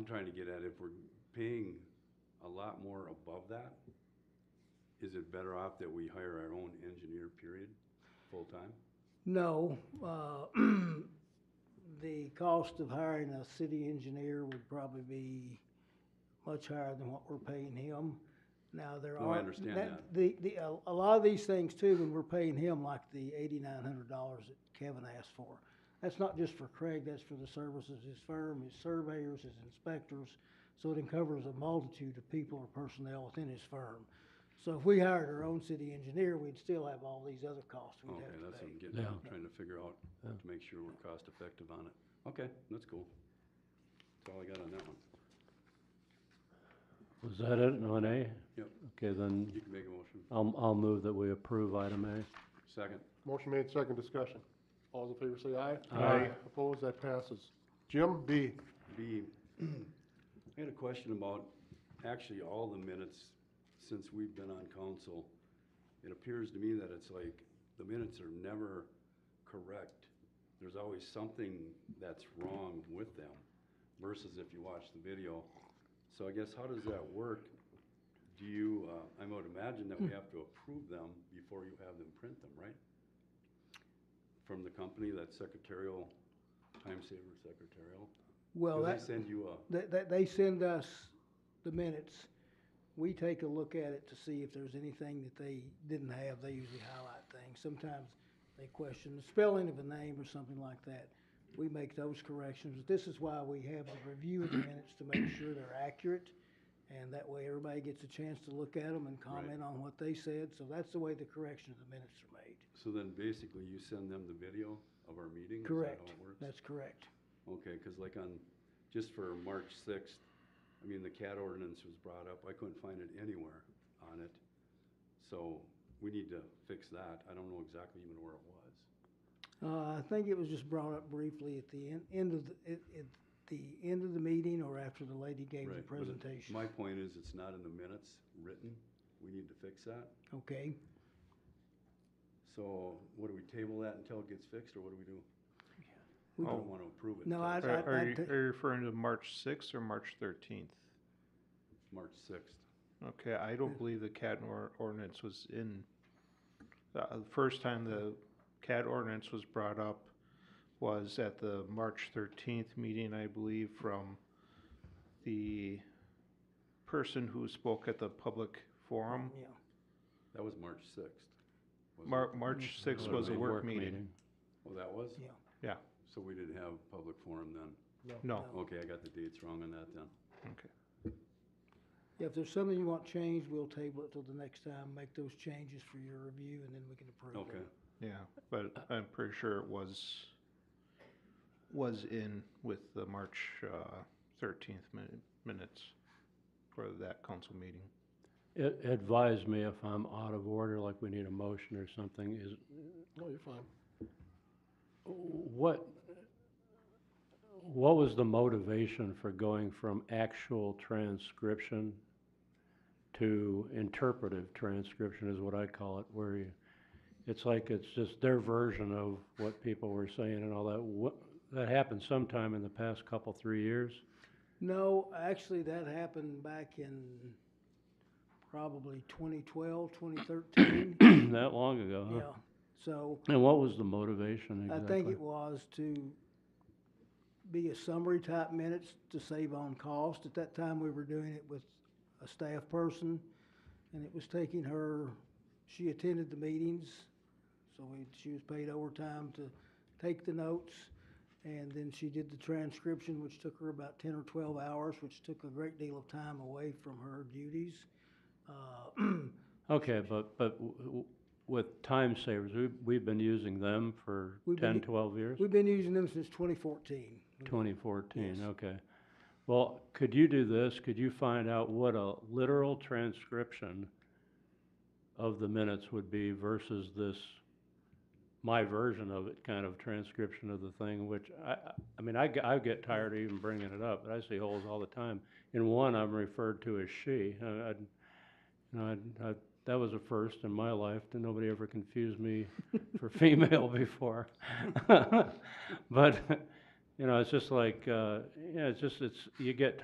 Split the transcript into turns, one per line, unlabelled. I'm trying to get at, if we're paying a lot more above that, is it better off that we hire our own engineer, period, full-time?
No, uh, the cost of hiring a city engineer would probably be much higher than what we're paying him. Now, there
No,
are.
Oh, I understand that.
The, the, a, a lot of these things too, when we're paying him like the eighty-nine hundred dollars that Kevin asked for. That's not just for Craig, that's for the services, his firm, his surveyors, his inspectors. So it encovers a multitude of people or personnel within his firm. So if we hired our own city engineer, we'd still have all these other costs we'd
Okay,
have to pay.
that's what I'm getting, at. I'm
Yeah.
trying to figure out,
Yeah.
to make sure we're cost-effective on it. Okay, that's cool. That's all I got on that one.
Was that it on A?
Yep.
Okay, then
You can make a motion.
I'll, I'll move that we approve item A.
Second.
Motion made, second discussion. All those in favor say aye.
Aye.
Opposed, that passes. Jim, B.
B, I had a question about actually all the minutes since we've been on council. It appears to me that it's like, the minutes are never correct. There's always something that's wrong with them versus if you watch the video. So I guess how does that work? Do you, uh, I would imagine that we have to approve them before you have them print them, right? From the company, that secretarial, time saver secretarial?
Well,
Do
that,
they send you a,
they, they, they send us the minutes. We take a look at it to see if there's anything that they didn't have. They usually highlight things. Sometimes they question the spelling of a name or something like that. We make those corrections. This is why we have the review of the minutes to make sure they're accurate. And that way everybody gets a chance to look at them and comment on what they said. So that's the way the correction of the minutes are made.
so then basically you send them the video of our meeting? Is that
Correct.
how it works?
That's correct.
Okay, because like on, just for March sixth, I mean, the cat ordinance was brought up, I couldn't find it anywhere on it. So we need to fix that, I don't know exactly even where it was.
Uh, I think it was just brought up briefly at the en- end of, the- at, at the end of the meeting or after the lady gave the
Right, but it-
presentation.
My point is, it's not in the minutes written, we need to fix that.
Okay,
So what do we table that until it gets fixed, or what do we do? I
We
don't want to approve it
No,
until
I-
Are, are
I'd
you,
ta-
are you referring to March sixth or March thirteenth?
March sixth.
Okay, I don't believe the CAD or- ordinance was in, the uh, first time the CAD ordinance was brought up was at the March thirteenth meeting, I believe, from the person who spoke at the public forum.
yeah,
That was March sixth.
Mar- March sixth was a work meeting.
Oh, that was?
yeah.
So we didn't have public forum then?
No,
Okay, I got the dates wrong on that then.
okay.
Yeah, If there's something you want changed, we'll table it till the next time, make those changes for your review and then we can approve it.
Okay,
Yeah, but I'm pretty sure it was, was in with the March uh, thirteenth minutes for that council meeting.
It, advise me if I'm out of order, like we need a motion or something, is,
No, you're fine.
what, what was the motivation for going from actual transcription to interpretive transcription is what I call it, where you, it's like it's just their version of what people were saying and all that. What, that happened sometime in the past couple, three years?
No, actually, that happened back in probably 2012, 2013.
That long ago,
Uh-huh.
huh?
Yeah, so
And what was the motivation
I
exactly?
think it was to be a summary type minutes to save on cost. At that time, we were doing it with a staff person, and it was taking her, she attended the meetings, so we, she was paid overtime to take the notes. And then she did the transcription, which took her about ten or twelve hours, which took a great deal of time away from her duties. Uh,
Okay, but, but w- w- with time savers, we've, we've been using them for
We've been
10,
u-
12 years?
We've been using them since twenty fourteen.
2014,
Yes.
okay. Well, could you do this? Could you find out what a literal transcription of the minutes would be versus this, my version of it, kind of transcription of the thing, which I, I- I mean, I, g- I get tired of even bringing it up, but I see holes all the time. In one, I'm referred to as she. I, I, you know, I, I, that was a first in my life, and nobody ever confused me for female before. But, you know, it's just like, uh, yeah, it's just, it's, you get